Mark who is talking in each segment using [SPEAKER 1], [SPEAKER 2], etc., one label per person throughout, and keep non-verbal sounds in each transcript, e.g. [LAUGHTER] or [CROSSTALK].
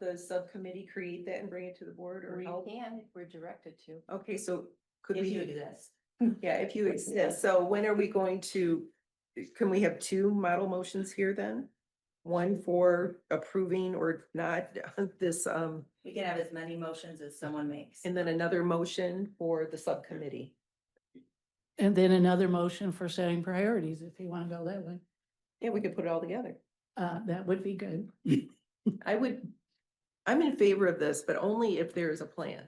[SPEAKER 1] the subcommittee create that and bring it to the board or
[SPEAKER 2] We
[SPEAKER 1] help?
[SPEAKER 2] can, if we're directed to.
[SPEAKER 1] Okay, so could
[SPEAKER 2] If you
[SPEAKER 1] we,
[SPEAKER 2] exist.
[SPEAKER 1] yeah, if you exist, so when are we going to, can we have two model motions here then? One for approving or not [LAUGHS] this, um,
[SPEAKER 2] We can have as many motions as someone makes.
[SPEAKER 1] and then another motion for the subcommittee.
[SPEAKER 3] And then another motion for setting priorities, if you want to go that way.
[SPEAKER 1] Yeah, we could put it all together.
[SPEAKER 3] Uh, that would be good.
[SPEAKER 1] I would, I'm in favor of this, but only if there is a plan.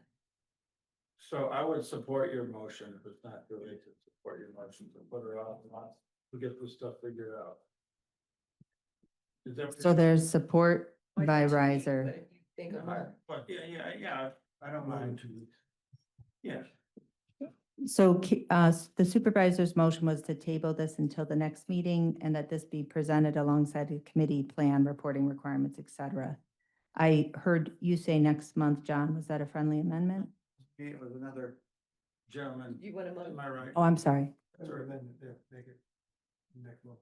[SPEAKER 4] So I would support your motion, if it's not too late to support your motion, to put her off, lots, to get this stuff figured out. Is that-
[SPEAKER 5] So there's support by
[SPEAKER 1] But
[SPEAKER 5] riser.
[SPEAKER 1] if you Think of
[SPEAKER 4] But,
[SPEAKER 1] her.
[SPEAKER 4] yeah, yeah, yeah, I don't mind to. Yeah,
[SPEAKER 5] So ki- uh, s- the supervisor's motion was to table this until the next meeting and that this be presented alongside a committee plan, reporting requirements, et cetera. I heard you say next month, John. Was that a friendly amendment?
[SPEAKER 4] it was another gentleman,
[SPEAKER 1] You want a
[SPEAKER 4] am
[SPEAKER 1] motion?
[SPEAKER 4] I right?
[SPEAKER 5] Oh, I'm sorry.
[SPEAKER 4] Sure, then, yeah, make it. Next month.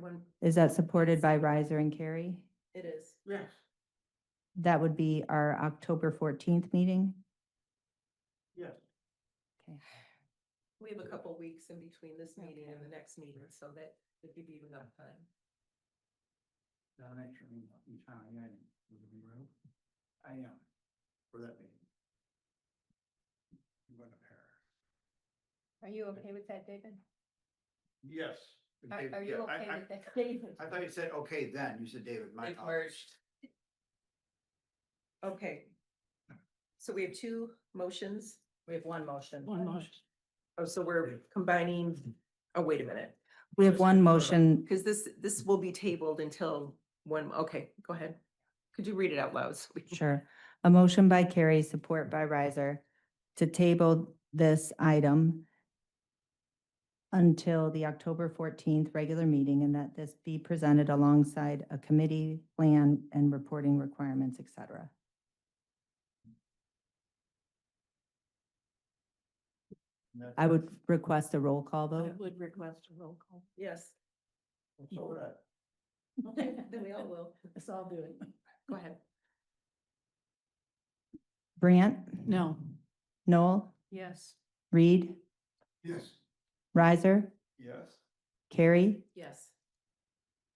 [SPEAKER 1] One-
[SPEAKER 5] Is that supported by riser and Carrie?
[SPEAKER 1] It is.
[SPEAKER 4] Yes,
[SPEAKER 5] That would be our October fourteenth meeting.
[SPEAKER 4] yes,
[SPEAKER 5] Okay.
[SPEAKER 1] We have a couple weeks in between this meeting and the next meeting, so that would give you enough time.
[SPEAKER 4] down at Sherman, in town, yeah, in the room. I am, for that meeting. I'm going to Paris.
[SPEAKER 2] Are you okay with that, David?
[SPEAKER 4] Yes.
[SPEAKER 2] Are,
[SPEAKER 6] David,
[SPEAKER 2] are
[SPEAKER 6] yeah,
[SPEAKER 2] you
[SPEAKER 6] I-
[SPEAKER 2] okay
[SPEAKER 6] I-
[SPEAKER 2] with that, David?
[SPEAKER 6] I thought you said, okay, then, you said, David, my.
[SPEAKER 2] They've
[SPEAKER 6] apologies."
[SPEAKER 1] Okay. So we have two motions.
[SPEAKER 2] We have one motion.
[SPEAKER 3] One motion.
[SPEAKER 1] Oh, so we're combining, oh, wait a minute,
[SPEAKER 5] We have
[SPEAKER 4] Just
[SPEAKER 5] one
[SPEAKER 4] to-
[SPEAKER 5] motion.
[SPEAKER 1] because this, this will be tabled until one, okay, go ahead. Could you read it out loud? so we can-
[SPEAKER 5] Sure. A motion by Carrie, support by riser to table this item until the October fourteenth regular meeting and that this be presented alongside a committee plan and reporting requirements, et cetera. I would request a roll call
[SPEAKER 3] I
[SPEAKER 5] vote.
[SPEAKER 3] would request a roll call.
[SPEAKER 1] Yes,
[SPEAKER 4] So would I.
[SPEAKER 1] [LAUGHS] then we
[SPEAKER 3] [LAUGHS]
[SPEAKER 1] all will.
[SPEAKER 3] Let's all do it.
[SPEAKER 1] Go ahead.
[SPEAKER 5] Brant?
[SPEAKER 3] No,
[SPEAKER 5] Noel?
[SPEAKER 3] yes.
[SPEAKER 5] Reed?
[SPEAKER 4] Yes.
[SPEAKER 5] Riser?
[SPEAKER 4] Yes.
[SPEAKER 5] Carrie?
[SPEAKER 1] Yes.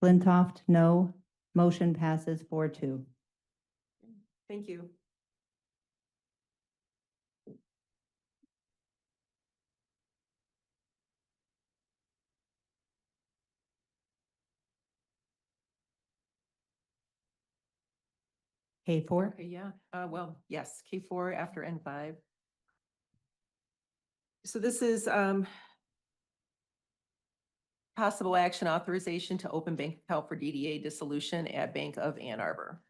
[SPEAKER 5] Flintoff, no. Motion passes four two.
[SPEAKER 1] Thank you.
[SPEAKER 5] K four?
[SPEAKER 3] Okay, yeah, uh, well,
[SPEAKER 1] Yes, K four after N five. So this is um possible action authorization to open bank account for DDA dissolution at Bank of Ann Arbor.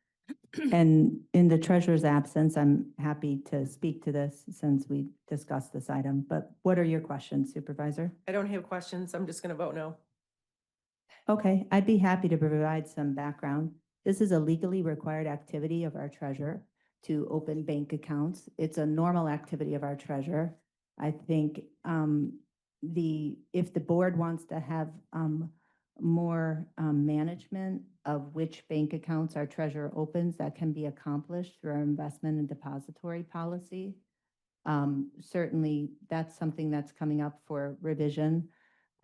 [SPEAKER 5] And in the treasurer's absence, I'm happy to speak to this since we discussed this item, but what are your questions Supervisor?
[SPEAKER 1] I don't have questions. I'm just gonna vote no.
[SPEAKER 5] Okay, I'd be happy to provide some background. This is a legally required activity of our treasurer to open bank accounts. It's a normal activity of our treasurer. I think um, the, if the board wants to have um, more um, management of which bank accounts our treasurer opens, that can be accomplished through our investment and depository policy. Um, Certainly, that's something that's coming up for revision.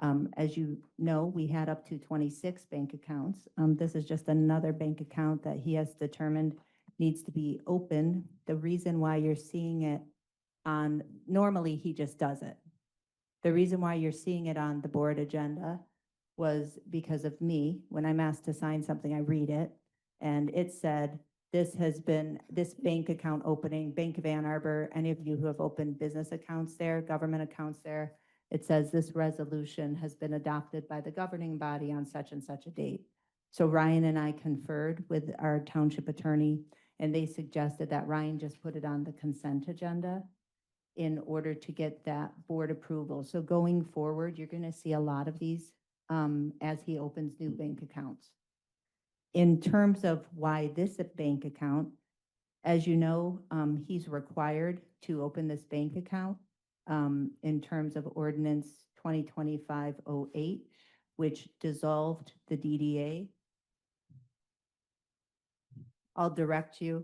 [SPEAKER 5] Um, as you know, we had up to twenty-six bank accounts. Um, this is just another bank account that he has determined needs to be open. The reason why you're seeing it on, normally he just does it. The reason why you're seeing it on the board agenda was because of me. When I'm asked to sign something, I read it. And it said, this has been, this bank account opening, Bank of Ann Arbor, any of you who have opened business accounts there, government accounts there, it says this resolution has been adopted by the governing body on such and such a date. So Ryan and I conferred with our township attorney, and they suggested that Ryan just put it on the consent agenda in order to get that board approval. So going forward, you're going to see a lot of these um, as he opens new bank accounts. In terms of why this bank account, as you know, um, he's required to open this bank account um, in terms of ordinance 2025-08, which dissolved the DDA. I'll direct you